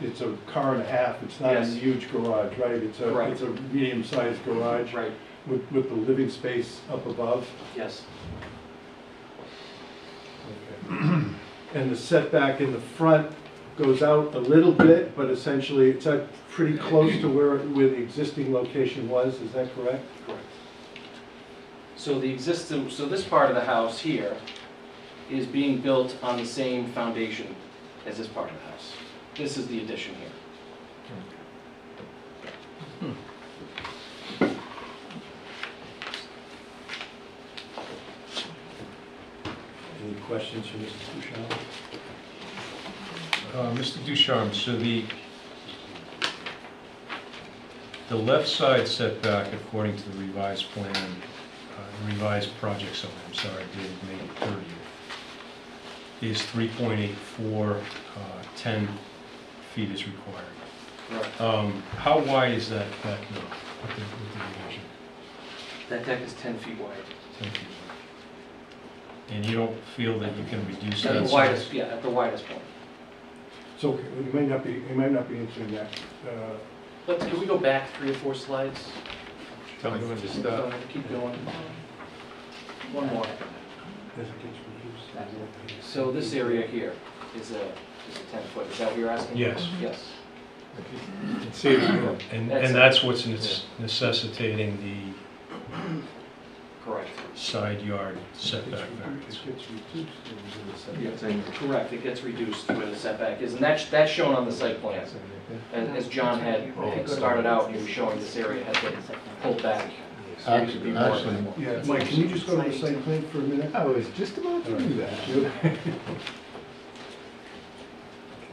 it's a car and a half, it's not a Yes. huge garage, right? It's a, Correct. it's a medium-sized garage Right, with, with the living space up above. yes, And the setback in the front goes out a little bit, but essentially it's uh, pretty close to where, where the existing location was, is that correct? correct. So the existing, so this part of the house here is being built on the same foundation as this part of the house. This is the addition here. Any questions for Mr. Bouchard? Uh, Mr. Ducharme, so the, the left side setback according to the revised plan, uh, revised project summary, I'm sorry, dated May 30th, is 3.84, uh, 10 feet is required. Correct. Um, How wide is that back now with the with the revision? That deck is 10 feet wide. 10 feet wide. And you don't feel that you can reduce At that the size? widest, yeah, at the widest point. So, you may not be, you may not be answering that. Uh, Let's, can we go back three or four slides? Tell me when to Uh, So stop. Keep going. One more. as it gets reduced, I don't think- So this area here is a, is a 10 foot, is that what you're asking? Yes. Yes. See it again. And, That's- and that's what's necess- necessitating the Correct. side yard It gets setback variance. reduced, it gets reduced and it's in the setback. Yeah. Correct, it gets reduced to where the setback is, and that's, that's shown on the site plan. As, as John had had started out, he was showing this area has been pulled back. so it should be more- Actually- Yeah, Mike, can you just go to the site plan for a minute? I was just about to do that.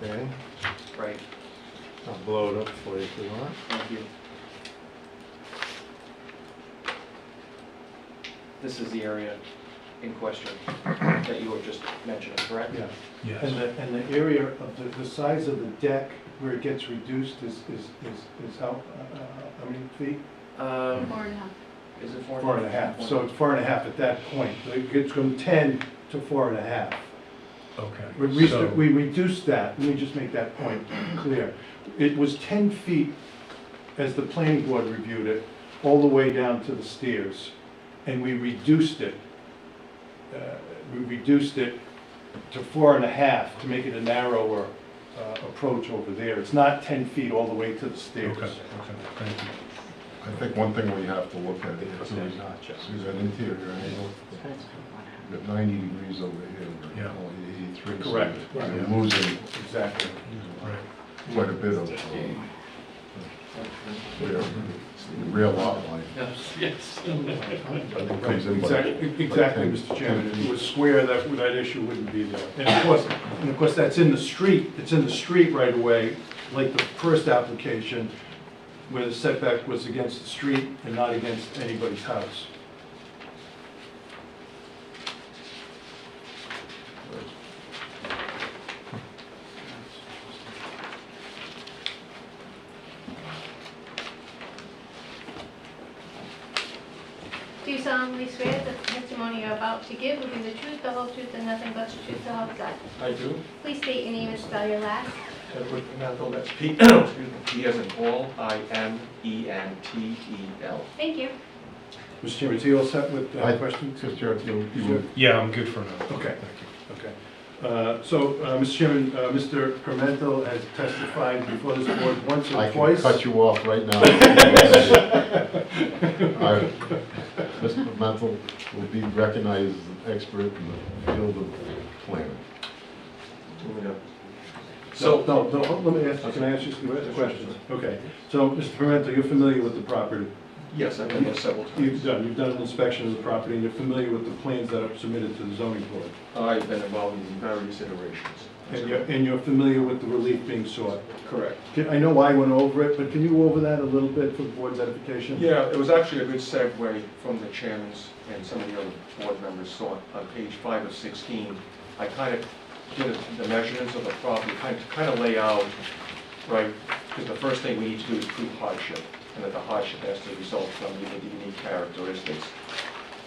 Okay, Right, I'll blow it up for you if you want. thank you. This is the area in question that you were just mentioning, correct? Yeah, and Yes. the, and the area of the, the size of the deck where it gets reduced is, is, is, is how, uh, how many feet? Um, Four and a half. is it four? Four and a half, so it's four and a half at that point, it gets from ten to four and a half. We, Okay. re- So, we reduced that, let me just make that point clear. It was ten feet, as the planning board reviewed it, all the way down to the stairs, and we reduced it. uh, We reduced it to four and a half to make it a narrower uh, approach over there. It's not ten feet all the way to the okay, stairs. okay, thank you. I think one thing we have to look at It's is a notch up. that interior angle. You've got 90 degrees over here, we're Yeah. only 83. so Correct. You're losing Exactly. Right. quite a bit of uh, rear- rear lot line. Yes, yes. I think it comes in by- Exactly, e-, exactly, by Mr. 10. Chairman, if it was square, that, that issue wouldn't be there. And of course, and of course, that's in the street, it's in the street right away, like the first application, where the setback was against the street and not against anybody's house. Do you solemnly swear that the testimony you're about to give will be the truth, the whole truth, and nothing but the truth, the whole God? I do. Please state your name and spell your last. Edward Mendel, that's Pete. P, excuse me, P as in Paul, I M E N T E L. Thank you. Mr. Chairman, is he all set with uh, I- questions? Mr. Chairman, you- you were- Yeah, I'm good for now. Okay. Thank you. Okay. Uh, So, uh, Mr. Chairman, uh, Mr. Pimentel has testified before this board once I or can twice. cut you off right now. I- Mr. Mantle will be recognized as an expert in the field of planning. So, no, no, let me ask, can I ask you some questions? Okay, so, Mr. Pimental, you're familiar with the property? Yes, I've been there several You've times. done, you've done an inspection of the property, and you're familiar with the plans that are submitted to the zoning board? I've been involved in various iterations. And you're, and you're familiar with the relief being sought? Correct. Can- I know I went over it, but can you go over that a little bit for the board's edification? Yeah, it was actually a good segue from the chairman's and some of the other board members saw it on page five of sixteen. I kind of did the measurements of the property, kind of, kind of lay out, right? Because the first thing we need to do is prove hardship, and that the hardship has to result from either the unique characteristics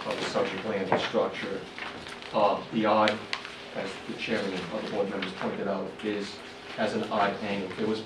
of the subject land and structure. Uh, the odd, as the chairman and other board members pointed out, is as an odd angle. There was